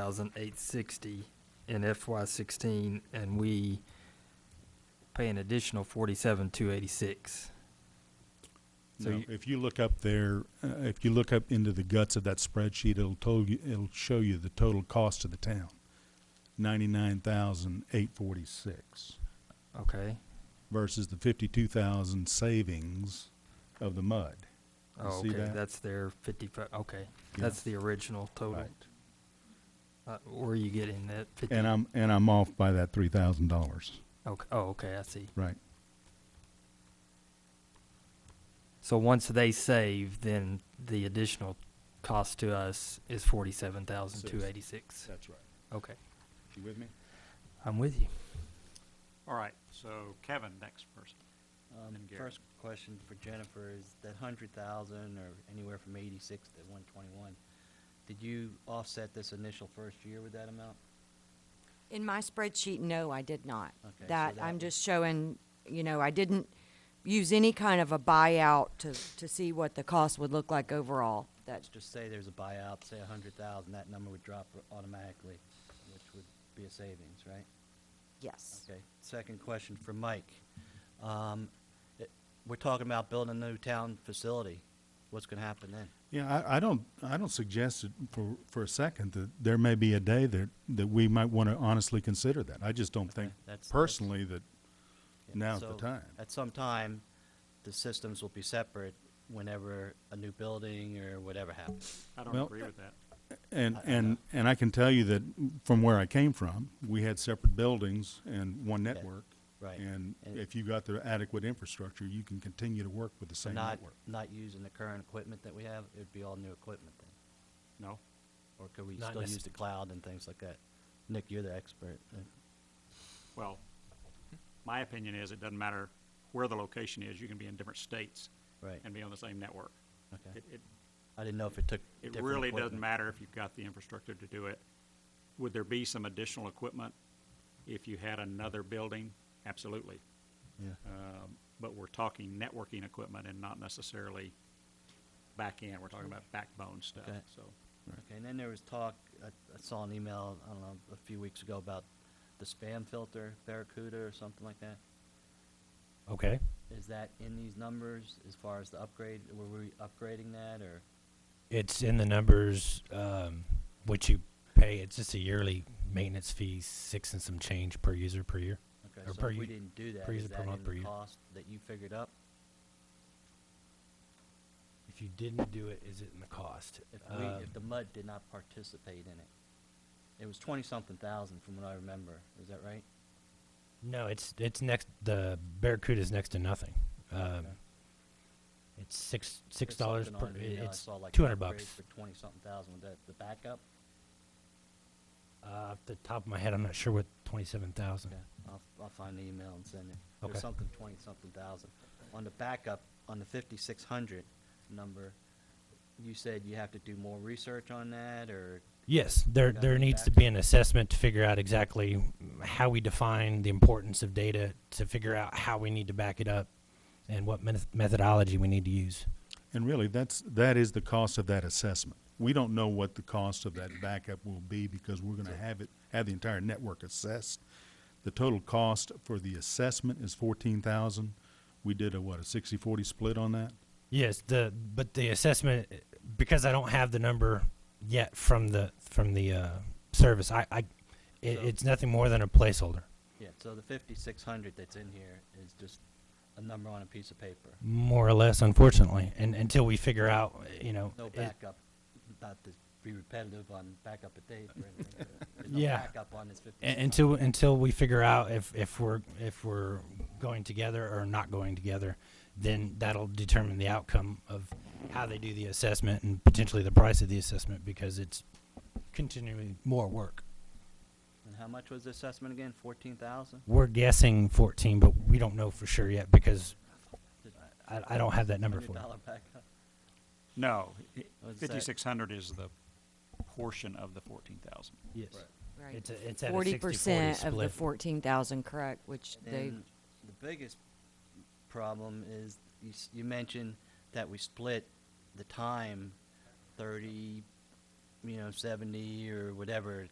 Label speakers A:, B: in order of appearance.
A: thousand eight sixty in FY sixteen, and we pay an additional forty-seven two eighty-six. So
B: No,
A: you-
B: if you look up there, uh, if you look up into the guts of that spreadsheet, it'll tell you, it'll show you the total cost of the town. Ninety-nine thousand eight forty-six
A: Okay.
B: versus the fifty-two thousand savings of the mud. You
A: Oh,
B: see
A: okay,
B: that?
A: that's their fifty-five, okay.
B: Yeah.
A: That's the original total.
B: Right.
A: Uh, where are you getting that fifty?
B: And I'm, and I'm off by that three thousand dollars,
A: Okay, oh, okay, I see.
B: right?
A: So once they save, then the additional cost to us is forty-seven thousand two eighty-six.
B: That's right.
A: Okay,
B: You with me?
A: I'm with you.
C: All right, so Kevin, next person.
D: Um,
C: And Gary.
D: First question for Jennifer is that hundred thousand or anywhere from eighty-six to one twenty-one, did you offset this initial first year with that amount?
E: In my spreadsheet, no, I did not.
D: Okay, so
E: That,
D: that
E: I'm
D: was-
E: just showing, you know, I didn't use any kind of a buyout to, to see what the cost would look like overall. That's
D: Let's just say there's a buyout, say a hundred thousand, that number would drop automatically, which would be a savings, right?
E: yes.
D: Okay, second question for Mike. Um, it- we're talking about building a new town facility. What's gonna happen then?
B: Yeah, I, I don't, I don't suggest it for, for a second that there may be a day that, that we might want to honestly consider that. I just don't think
D: that's- that's-
B: personally that
D: Yeah,
B: now's the
D: so
B: time.
D: At some time, the systems will be separate whenever a new building or whatever happens.
C: I don't
B: Well-
D: uh,
C: agree with that.
B: And,
D: I- I
B: and,
D: know.
B: and I can tell you that from where I came from, we had separate buildings and one
D: Okay,
B: network.
D: right.
B: And
D: And-
B: if you got the adequate infrastructure, you can continue to work with the same
D: Not,
B: network.
D: not using the current equipment that we have, it'd be all new equipment then?
C: No?
D: Or could we
F: Not
D: still use
F: necess-
D: the cloud and things like that? Nick, you're the expert. Uh,
C: Well, my opinion is it doesn't matter where the location is, you can be in different states
D: Right,
C: and be on the same network.
D: okay.
C: It, it,
D: I didn't know if it took different
C: it really doesn't
D: equipment.
C: matter if you've got the infrastructure to do it. Would there be some additional equipment if you had another building? Absolutely.
D: Yeah,
C: Um, But we're talking networking equipment and not necessarily back end. We're talking about backbone stuff,
D: Okay.
C: so.
D: okay, and then there was talk, I I saw an email, I don't know, a few weeks ago about the spam filter, Barracuda or something like that.
F: Okay.
D: Is that in these numbers as far as the upgrade? Were we upgrading that or?
F: It's in the numbers, um, what you pay. It's just a yearly maintenance fee, six and some change per user per year.
D: Okay,
F: Or
D: so
F: per
D: if we
F: u-
D: didn't do that,
F: per
D: is
F: user per
D: that
F: month
D: in
F: per
D: the
F: year.
D: cost that you figured up?
F: If you didn't do it, is it in the cost?
D: If we,
F: Um,
D: if the mud did not participate in it? It was twenty-something thousand from what I remember, is that right?
F: No, it's, it's next, the Barracuda is next to nothing. Um,
D: Okay.
F: it's six,
D: There's
F: six dollars
D: something
F: per,
D: on
F: i-
D: the email I
F: it's
D: saw, like,
F: two hundred
D: upgrade
F: bucks.
D: For twenty-something thousand, was that the backup?
F: Uh, off the top of my head, I'm not sure what twenty-seven thousand.
D: Okay, I'll, I'll find the email and send it.
F: Okay.
D: There's something twenty-something thousand. On the backup, on the fifty-six hundred number, you said you have to do more research on that or?
F: Yes, there,
D: Got
F: there
D: it
F: needs to
D: back.
F: be an assessment to figure out exactly how we define the importance of data, to figure out how we need to back it up, and what meth- methodology we need to use.
B: And really, that's, that is the cost of that assessment. We don't know what the cost of that backup will be because we're gonna have it, have the entire network assessed. The total cost for the assessment is fourteen thousand. We did a, what, a sixty-forty split on that?
F: Yes, the but the assessment because I don't have the number yet from the from the uh, service. I, I it,
D: So-
F: it's nothing more than a placeholder,
D: Yeah, so the fifty-six hundred that's in here is just a number on a piece of paper.
F: more or less, unfortunately. And until we figure out, you know,
D: No
F: it-
D: backup, not to be repetitive on backup at date or anything. There's no
F: Yeah.
D: backup on this
F: a-
D: 5600.
F: until until we figure out if if we're if we're going together or not going together, then that'll determine the outcome of how they do the assessment and potentially the price of the assessment because it's continually more work.
D: And how much was the assessment again? Fourteen thousand?
F: We're guessing 14, but we don't know for sure yet because I, I don't have that number for
D: Hundred dollar
F: you.
D: backup?
C: No,
D: What's that?
C: fifty-six hundred is the portion of the fourteen thousand.
F: Yes.
E: Right.
F: It's a- it's at a
E: Forty
F: 60/40
E: percent of the
F: split.
E: fourteen thousand, correct, which they,
D: And the biggest problem is you, s- you mentioned that we split the time thirty, you know, seventy or whatever